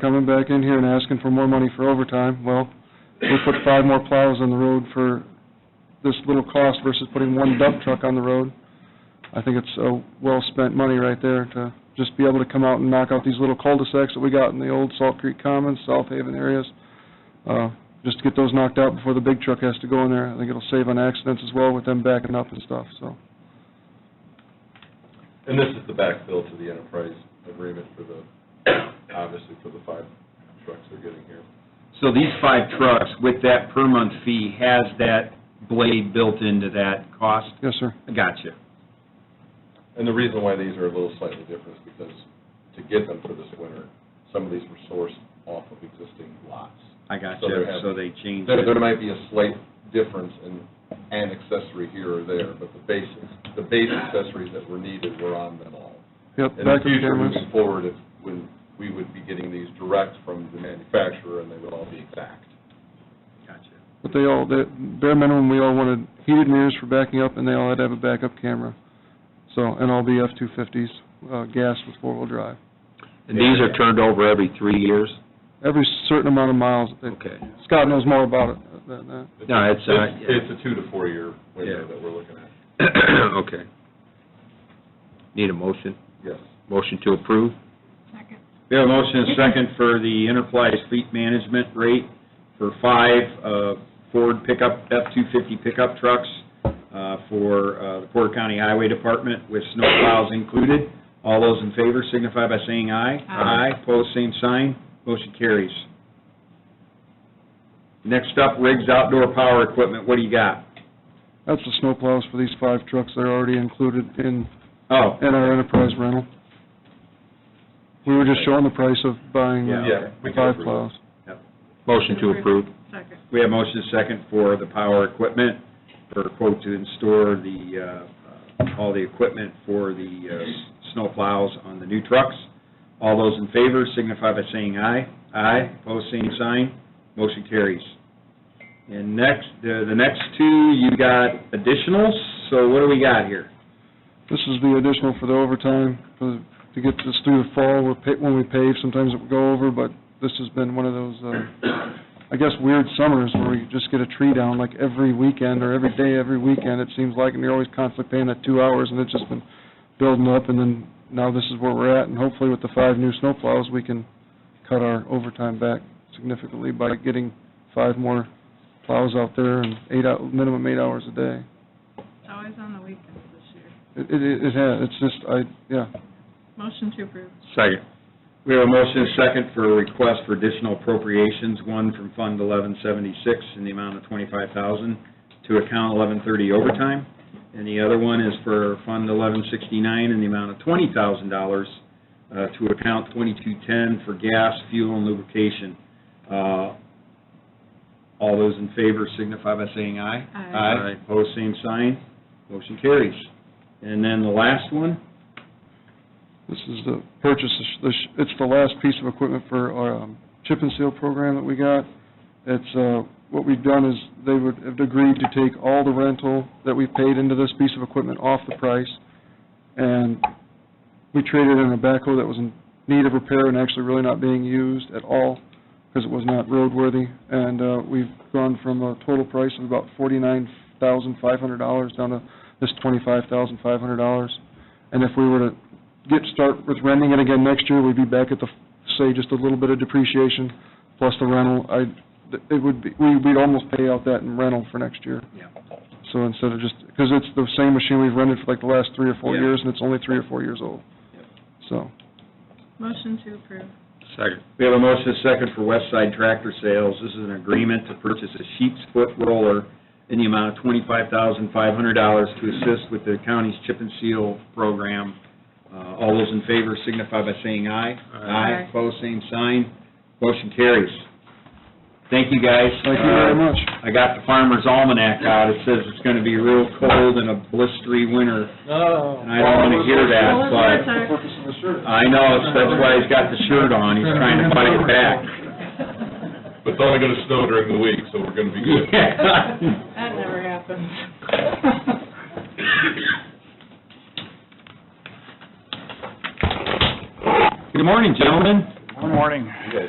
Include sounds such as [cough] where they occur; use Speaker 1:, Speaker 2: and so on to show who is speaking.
Speaker 1: coming back in here and asking for more money for overtime. Well, we put five more plows on the road for this little cost versus putting one dump truck on the road. I think it's uh, well-spent money right there to just be able to come out and knock out these little cul-de-sacs that we got in the old Salt Creek Commons, South Haven areas. Uh, Just to get those knocked out before the big truck has to go in there. I think it'll save on accidents as well with them backing up and stuff, so.
Speaker 2: And this is the backfill to the enterprise agreement for the, obviously for the five trucks they're getting here.
Speaker 3: So these five trucks, with that per month fee, has that blade built into that cost?
Speaker 1: Yes, sir.
Speaker 3: Gotcha.
Speaker 2: And the reason why these are a little slightly different is because to get them for this winter, some of these were sourced off of existing lots.
Speaker 3: I gotcha.
Speaker 2: So they're having-
Speaker 3: So they changed
Speaker 2: There, there
Speaker 3: it.
Speaker 2: might be a slight difference in an accessory here or there, but the basics, the base accessories that were needed were on them all.
Speaker 1: Yep,
Speaker 2: In the
Speaker 1: backup
Speaker 2: future,
Speaker 1: cameras.
Speaker 2: moving forward, if, when, we would be getting these direct from the manufacturer and they would all be exact.
Speaker 3: Gotcha.
Speaker 1: But they all, the bare minimum, we all wanted heated mirrors for backing up, and they all had to have a backup camera. So, and all the F-250s, uh, gas with four-wheel drive.
Speaker 4: And these are turned over every three years?
Speaker 1: Every certain amount of miles, they-
Speaker 4: Okay.
Speaker 1: Scott knows more about it than that.
Speaker 4: No, it's, uh,
Speaker 2: It's, it's a two to four-year window
Speaker 4: Yeah.
Speaker 2: that we're looking at,
Speaker 4: [coughs] Okay. Need a motion?
Speaker 2: yes.
Speaker 4: Motion to approve?
Speaker 3: We have a motion and a second for the Interfly fleet management rate for five uh, Ford pickup, F-250 pickup trucks uh, for uh, the Porter County Highway Department with snow plows included. All those in favor signify by saying aye.
Speaker 4: Aye.
Speaker 3: Aye, pose same sign, motion carries. Next up, Riggs Outdoor Power Equipment, what do you got?
Speaker 1: That's the snow plows for these five trucks that are already included in,
Speaker 3: Oh,
Speaker 1: in our enterprise rental. We were just showing the price of buying
Speaker 3: Yeah.
Speaker 1: the
Speaker 2: Yeah, we can
Speaker 1: five
Speaker 2: approve.
Speaker 1: plows.
Speaker 4: Motion to approve?
Speaker 5: Second.
Speaker 3: we have motion and second for the power equipment, for quote to install the, uh, uh, all the equipment for the uh, s- snow plows on the new trucks. All those in favor signify by saying aye. Aye, pose same sign, motion carries. And next, the the next two, you got additionals, so what do we got here?
Speaker 1: This is the additional for the overtime, for, to get this through the fall, we're, pa- when we pave, sometimes it would go over, but this has been one of those, uh, I guess weird summers where we just get a tree down like every weekend or every day, every weekend, it seems like, and you're always constantly paying that two hours, and it's just been building up, and then now this is where we're at, and hopefully with the five new snowplows, we can cut our overtime back significantly by getting five more plows out there and eight out, minimum eight hours a day.
Speaker 5: It's always on the weekends this year.
Speaker 1: It, it, it has, it's just, I, yeah,
Speaker 5: Motion to approve.
Speaker 3: Second. We have a motion and second for a request for additional appropriations, one from Fund 1176 in the amount of 25000 to account 1130 overtime, and the other one is for Fund 1169 in the amount of $20,000 uh, to account 2210 for gas, fuel, and lubrication. Uh, All those in favor signify by saying aye.
Speaker 5: Aye.
Speaker 3: Aye, pose same sign, motion carries. And then the last one,
Speaker 1: This is the purchase, of sh- the sh- it's the last piece of equipment for our um, chip and seal program that we got. It's, uh, what we've done is, they would have agreed to take all the rental that we paid into this piece of equipment off the price, and we traded in a backhoe that was in need of repair and actually really not being used at all, because it was not roadworthy, and uh, we've gone from a total price of about forty-nine thousand five hundred dollars down to this twenty-five thousand five hundred dollars. And if we were to get, start with renting it again next year, we'd be back at the, say, just a little bit of depreciation plus the rental. I, it would be, we- we'd almost pay out that in rental for next year.
Speaker 3: Yeah.
Speaker 1: So instead of just, because it's the same machine we've rented for like the last three or four
Speaker 3: Yeah.
Speaker 1: years, and it's only three or four years old.
Speaker 3: Yeah.
Speaker 1: So,
Speaker 5: Motion to approve.
Speaker 4: Second.
Speaker 3: We have a motion and a second for West Side Tractor Sales. This is an agreement to purchase a sheep's foot roller in the amount of twenty-five thousand five hundred dollars to assist with the county's chip and seal program. Uh, all those in favor signify by saying aye.
Speaker 5: Aye.
Speaker 3: Opposed, same sign. Motion carries. Thank you, guys.
Speaker 1: thank you very
Speaker 3: Uh,
Speaker 1: much.
Speaker 3: I got the farmer's almanac out. It says it's gonna be real cold and a blistery winter.
Speaker 2: Oh.
Speaker 3: And I don't wanna hear that,
Speaker 5: Well,
Speaker 3: but...
Speaker 5: it's our-
Speaker 3: I know, it's- that's why he's got the shirt on, he's trying to fight it back.
Speaker 2: But it's only gonna snow during the week, so we're gonna be good.
Speaker 5: That never happens.
Speaker 3: Good morning, gentlemen.
Speaker 6: Good morning.
Speaker 2: You guys